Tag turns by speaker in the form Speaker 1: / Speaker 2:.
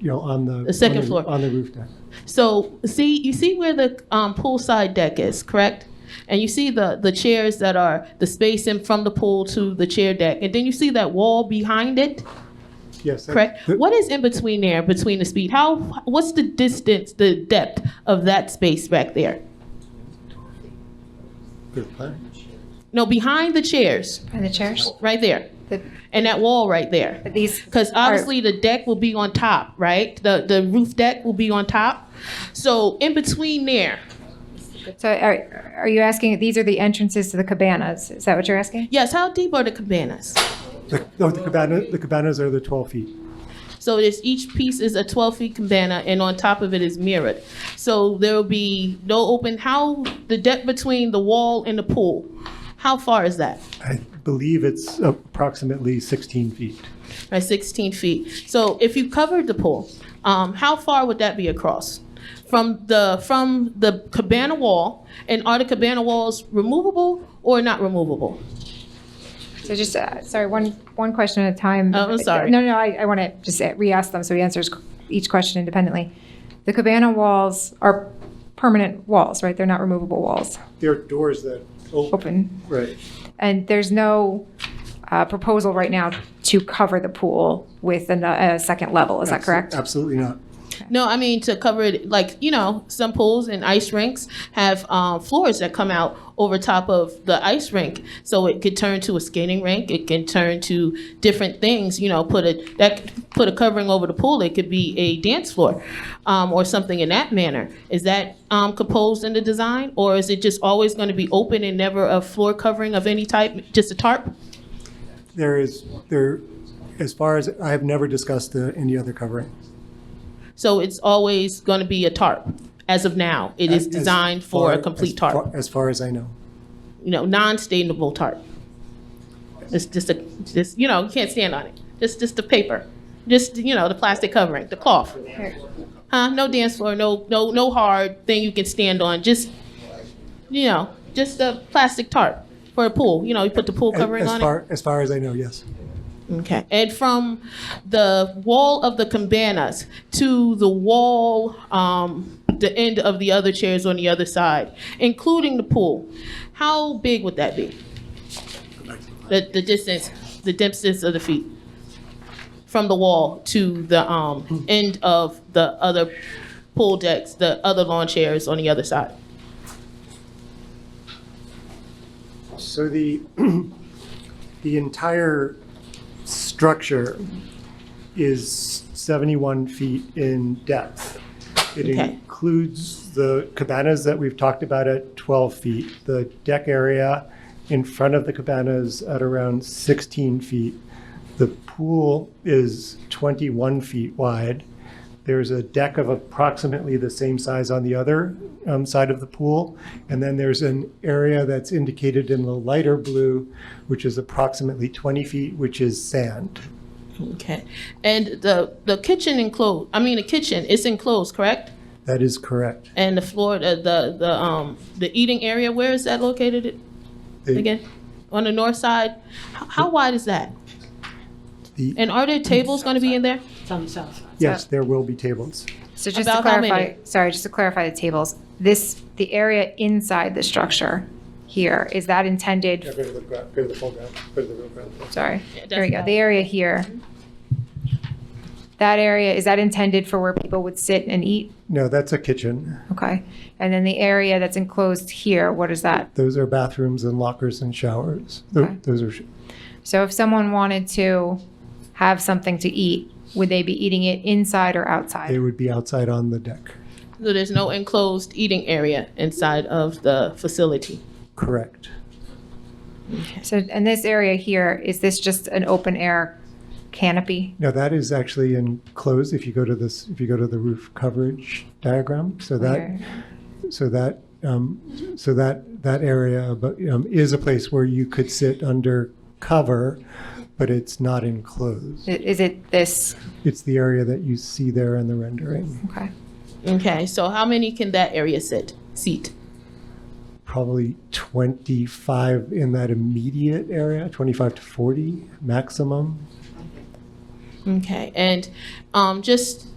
Speaker 1: you know, on the.
Speaker 2: The second
Speaker 1: on
Speaker 2: floor.
Speaker 1: On the roof deck.
Speaker 2: So see, you see where the um, poolside deck is, correct? And you see the the chairs that are the spacing from the pool to the chair deck, and then you see that wall behind it,
Speaker 1: Yes. that-
Speaker 2: correct?
Speaker 1: th-
Speaker 2: What is in between there, between the speed? How? What's the distance, the depth of that space back there?
Speaker 1: good plan.
Speaker 2: No, behind the chairs,
Speaker 3: Are the chairs?
Speaker 2: right there,
Speaker 3: The-
Speaker 2: and that wall right there.
Speaker 3: These.
Speaker 2: Because
Speaker 3: are-
Speaker 2: obviously the deck will be on top, right? The the roof deck will be on top. So in between there,
Speaker 3: So are, are you asking, these are the entrances to the cabanas? Is that what you're asking?
Speaker 2: yes. How deep are the cabanas?
Speaker 1: The- No, the cabana, the cabanas are the 12 feet.
Speaker 2: So it's each piece is a 12 feet cabana, and on top of it is mirrored. So there will be no open. How the depth between the wall and the pool? How far is that?
Speaker 1: I believe it's approximately 16 feet.
Speaker 2: Right, 16 feet. So if you covered the pool, um, how far would that be across? From the from the cabana wall, and are the cabana walls removable or not removable?
Speaker 3: So just, uh, sorry, one, one question at a time.
Speaker 2: Oh, I'm sorry.
Speaker 3: No, no, I, I want to just uh, re-ask them so he answers each question independently. The cabana walls are permanent walls, right? They're not removable walls,
Speaker 1: There are doors that open.
Speaker 3: open.
Speaker 1: Right.
Speaker 3: And there's no uh, proposal right now to cover the pool with an- a second level, is that correct?
Speaker 1: Absolutely not.
Speaker 2: No, I mean to cover it, like you know, some pools and ice rinks have um, floors that come out over top of the ice rink, so it could turn to a skating rink. It can turn to different things, you know, put a that put a covering over the pool. It could be a dance floor, um, or something in that manner. Is that um, composed in the design, or is it just always going to be open and never a floor covering of any type, just a tarp?
Speaker 1: There is, there, as far as, I have never discussed uh, any other covering.
Speaker 2: So it's always going to be a tarp. As of now, it is
Speaker 1: As
Speaker 2: designed for
Speaker 1: far-
Speaker 2: a complete
Speaker 1: as
Speaker 2: tarp.
Speaker 1: far- As far as I know.
Speaker 2: you know, non-stainable tarp. It's just a, just, you know, you can't stand on it. Just, just the paper, just, you know, the plastic covering, the cloth. Huh? No dance floor, no, no, no hard thing you can stand on. Just, you know, just a plastic tarp for a pool. You know, you put the pool
Speaker 1: As-
Speaker 2: covering
Speaker 1: as
Speaker 2: on it.
Speaker 1: far- As far as I know, yes.
Speaker 2: Okay. And from the wall of the cabanas to the wall, um, the end of the other chairs on the other side, including the pool, how big would that be? The, the distance, the distance of the feet from the wall to the, um, end of the other pool decks, the other lawn chairs on the other side.
Speaker 1: So the, the entire structure is 71 feet in depth. It
Speaker 2: Okay.
Speaker 1: includes the cabanas that we've talked about at 12 feet, the deck area in front of the cabanas at around 16 feet. The pool is 21 feet wide. There's a deck of approximately the same size on the other um, side of the pool. And then there's an area that's indicated in the lighter blue, which is approximately 20 feet, which is sand.
Speaker 2: Okay. And the, the kitchen enclosed, I mean, the kitchen, it's enclosed, correct?
Speaker 1: That is correct.
Speaker 2: And the floor, the, the, the, um, the eating area, where is that located
Speaker 1: The-
Speaker 2: again? On the north side? H- How wide is that?
Speaker 1: the-
Speaker 2: And are there tables gonna be in there?
Speaker 1: Yes, there will be tables.
Speaker 3: So just to
Speaker 2: About how
Speaker 3: clarify,
Speaker 2: many?
Speaker 3: sorry, just to clarify the tables, this, the area inside the structure here, is that intended,
Speaker 1: go to the, go to the full ground, go to the real ground.
Speaker 3: sorry,
Speaker 2: that's
Speaker 3: there we go,
Speaker 2: about-
Speaker 3: the area here. That area, is that intended for where people would sit and eat?
Speaker 1: No, that's a kitchen.
Speaker 3: Okay. And then the area that's enclosed here, what is that?
Speaker 1: Those are bathrooms and lockers and showers. Tho-
Speaker 3: Okay.
Speaker 1: Those are, sh-
Speaker 3: So if someone wanted to have something to eat, would they be eating it inside or
Speaker 1: they
Speaker 3: outside?
Speaker 1: would be outside on the deck.
Speaker 2: So there's no enclosed eating area inside of the facility?
Speaker 1: Correct.
Speaker 3: So, and this area here, is this just an open air canopy?
Speaker 1: No, that is actually enclosed if you go to this, if you go to the roof coverage diagram. So that,
Speaker 3: Or-
Speaker 1: so that, um, so that, that area abo- um, is a place where you could sit under cover, but it's not enclosed.
Speaker 3: Is it this,
Speaker 1: It's the area that you see there in the rendering.
Speaker 3: okay.
Speaker 2: Okay, so how many can that area sit, seat?
Speaker 1: Probably 25 in that immediate area, 25 to 40 maximum.
Speaker 2: Okay, and um, just